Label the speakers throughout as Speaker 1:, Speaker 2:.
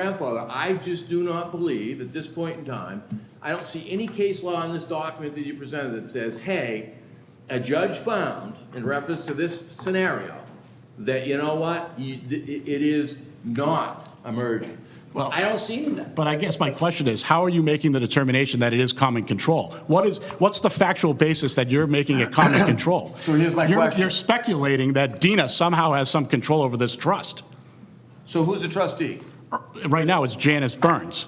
Speaker 1: grandfather, I just do not believe, at this point in time, I don't see any case law in this document that you presented that says, hey, a judge found, in reference to this scenario, that, you know what, you, it, it is not emergent.
Speaker 2: Well-
Speaker 1: I don't see any of that.
Speaker 2: But I guess my question is, how are you making the determination that it is common control? What is, what's the factual basis that you're making it common control?
Speaker 1: So here's my
Speaker 2: You're-
Speaker 1: question.
Speaker 2: You're speculating that Dina somehow has some control over this trust. Er,
Speaker 1: So who's the trustee?
Speaker 2: Right now, it's Janice Burns.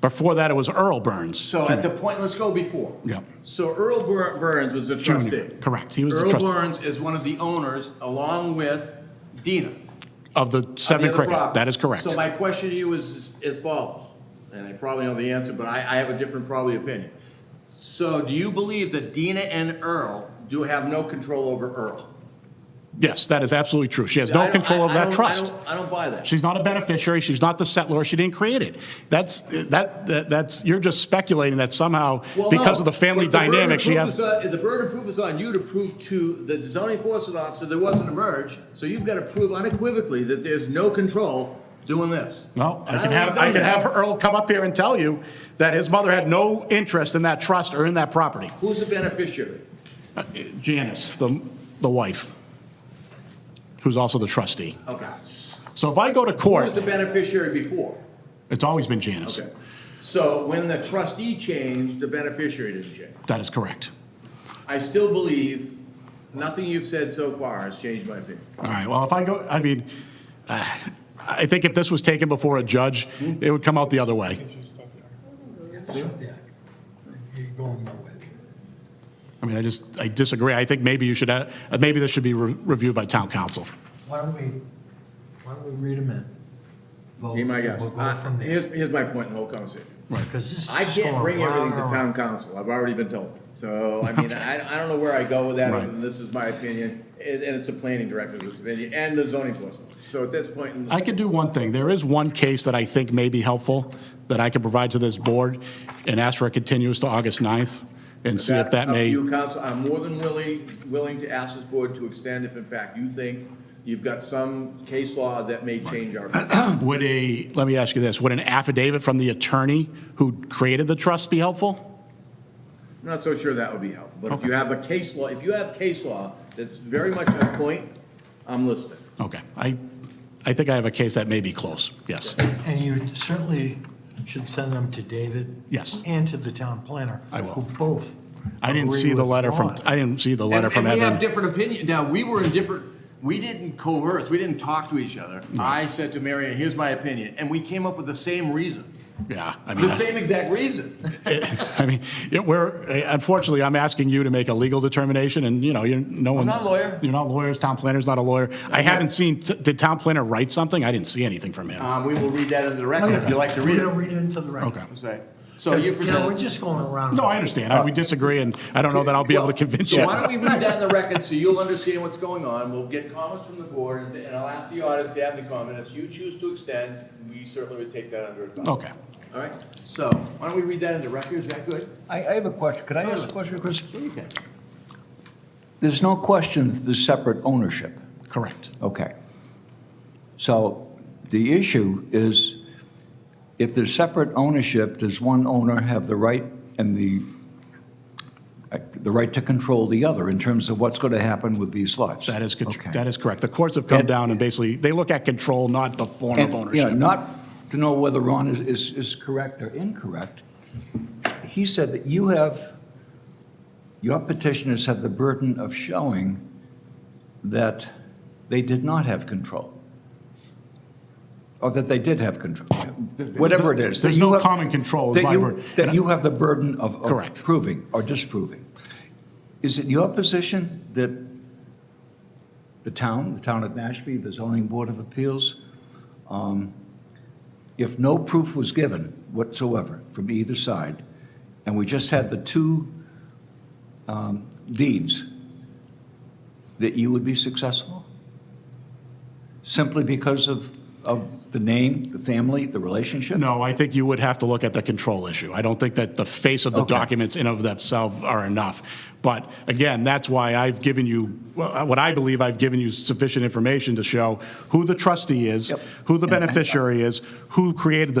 Speaker 2: Before that, it was Earl Burns.
Speaker 1: So at the point, let's go before.
Speaker 2: Yeah.
Speaker 1: So Earl Bur- Burns was a trustee.
Speaker 2: Correct, he was the
Speaker 1: Earl
Speaker 2: trustee
Speaker 1: Burns is one of the owners, along with Dina.
Speaker 2: of the
Speaker 1: the
Speaker 2: Seven
Speaker 1: other
Speaker 2: Cricket.
Speaker 1: property.
Speaker 2: That is correct.
Speaker 1: So my question to you is as follows, and I probably know the answer, but I, I have a different probably opinion. So do you believe that Dina and Earl do have no control over Earl?
Speaker 2: Yes, that is absolutely true. She has
Speaker 1: I
Speaker 2: no
Speaker 1: don't-
Speaker 2: control
Speaker 1: I-
Speaker 2: over
Speaker 1: I
Speaker 2: that
Speaker 1: don't- I
Speaker 2: trust.
Speaker 1: don't- I don't buy that.
Speaker 2: She's not a beneficiary, she's not the settlor, she didn't create it. That's, that, that- that's, you're just speculating that somehow,
Speaker 1: Well,
Speaker 2: because
Speaker 1: no,
Speaker 2: of the family
Speaker 1: but burden of
Speaker 2: dynamic, she
Speaker 1: proof
Speaker 2: has.
Speaker 1: is on- The burden of proof is on you to prove to the zoning enforcement officer there wasn't a merge, so you've got to prove unequivocally that there's no control doing this.
Speaker 2: Well,
Speaker 1: And
Speaker 2: I can
Speaker 1: don't
Speaker 2: have,
Speaker 1: know
Speaker 2: I can
Speaker 1: that.
Speaker 2: have Earl come up here and tell you that his mother had no interest in that trust or in that property.
Speaker 1: Who's the beneficiary?
Speaker 2: Janice, the, the wife, who's also the trustee.
Speaker 1: Okay.
Speaker 2: So if I go to court,
Speaker 1: Who's the beneficiary before?
Speaker 2: it's always been Janice.
Speaker 1: Okay. So when the trustee changed, the beneficiary didn't change.
Speaker 2: That is correct.
Speaker 1: I still believe, nothing you've said so far has changed my opinion.
Speaker 2: All right, well, if I go, I mean, uh, I think if this was taken before a judge,
Speaker 1: Hmm?
Speaker 2: it would come out the other way.
Speaker 3: You're going nowhere.
Speaker 2: I mean, I just, I disagree. I think maybe you should, uh, maybe this should be re- reviewed by town council.
Speaker 3: Why don't we, why don't we read them in? Vote,
Speaker 1: Be my
Speaker 3: and
Speaker 1: guest.
Speaker 3: We'll go from
Speaker 1: Here's,
Speaker 3: there.
Speaker 1: here's my point in the whole conversation.
Speaker 3: Because this is
Speaker 1: I
Speaker 3: just
Speaker 1: can't
Speaker 3: going
Speaker 1: bring
Speaker 3: round
Speaker 1: everything to
Speaker 3: and
Speaker 1: town
Speaker 3: round.
Speaker 1: council, I've already been told. So, I mean, I, I don't know where I go with that, other
Speaker 2: Right.
Speaker 1: than this is my opinion, and, and it's a planning director's opinion, and the zoning enforcement. So at this point, in the-
Speaker 2: I could do one thing. There is one case that I think may be helpful that I can provide to this board and ask for a continuance to August 9th and see
Speaker 1: that's
Speaker 2: if that
Speaker 1: up to
Speaker 2: may,
Speaker 1: you, council, I'm more than willing, willing to ask this board to extend if in fact you think you've got some case law that may change our.
Speaker 2: would a, let me ask you this, would an affidavit from the attorney who created the trust be helpful?
Speaker 1: I'm not so sure that would be helpful, but if you have a case law, if you have case law that's very much on point, I'm listening.
Speaker 2: Okay. I, I think I have a case that may be close, yes.
Speaker 3: And you certainly should send them to David.
Speaker 2: Yes.
Speaker 3: And to the town planner.
Speaker 2: I will.
Speaker 3: Who both.
Speaker 2: I didn't
Speaker 3: agree
Speaker 2: see the
Speaker 3: with
Speaker 2: letter from,
Speaker 3: Ron.
Speaker 2: I didn't see the
Speaker 1: And
Speaker 2: letter from
Speaker 1: and we have
Speaker 2: Evan.
Speaker 1: different opinion, now, we were in different, we didn't coerce, we didn't talk to each other. I said to Marion, here's my opinion, and we came up with the same reason,
Speaker 2: Yeah, I mean,
Speaker 1: the same exact reason.
Speaker 2: I mean, yeah, we're, uh, unfortunately, I'm asking you to make a legal determination, and, you know, you're, no one.
Speaker 1: not a lawyer.
Speaker 2: You're not lawyers, town planner's not a lawyer. I haven't seen, did town planner write something? I didn't see anything from him.
Speaker 1: Um, we will read that into the record if
Speaker 3: Okay.
Speaker 1: you'd like to
Speaker 3: We're
Speaker 1: read
Speaker 3: gonna
Speaker 1: it.
Speaker 3: read it into the record.
Speaker 2: Okay.
Speaker 1: That's right. So you
Speaker 3: You know, we're
Speaker 1: presented.
Speaker 3: just going around.
Speaker 2: No, I understand, I- we disagree, and I don't know that I'll be able to convince you.
Speaker 1: So why don't we read that in the record so you'll understand what's going on? We'll get comments from the board, and- and I'll ask the audience to have the comment. If you choose to extend, we certainly would take that under advisement.
Speaker 2: Okay.
Speaker 1: All right, so why don't we read that into record, is that good?
Speaker 4: I, I have a question. Could I ask a question, Chris?
Speaker 1: Okay.
Speaker 4: There's no question the separate ownership.
Speaker 2: Correct.
Speaker 4: Okay. So the issue is, if there's separate ownership, does one owner have the right and the, uh, the right to control the other in terms of what's going to happen with these lots?
Speaker 2: That is, contr-
Speaker 4: Okay.
Speaker 2: that is correct. The courts have come
Speaker 4: And-
Speaker 2: down and basically, they look at control, not the form
Speaker 4: And,
Speaker 2: of
Speaker 4: yeah,
Speaker 2: ownership.
Speaker 4: Not to know whether Ron is, is, is correct or incorrect. He said that you have, your petitioners have the burden of showing that they did not have control. Or that they did have control, whatever it is. that
Speaker 2: There's
Speaker 4: you
Speaker 2: no
Speaker 4: have-
Speaker 2: common control is
Speaker 4: that
Speaker 2: my
Speaker 4: you-
Speaker 2: word.
Speaker 4: That you have the burden of. of
Speaker 2: Correct.
Speaker 4: Proving or disproving. Is it your position that the town, the town of Mashpee, the zoning board of appeals, if no proof was given whatsoever from either side, and we just had the two um, deeds, that you would be successful? Simply because of of the name, the family, the relationship?
Speaker 2: No, I think you would have to look at the control issue. I don't think that the face of the
Speaker 4: Okay.
Speaker 2: documents in of themselves are enough. But again, that's why I've given you, well, uh, what I believe I've given you sufficient information to show who the trustee is,
Speaker 4: Yep. uh,
Speaker 2: who the beneficiary is, who created the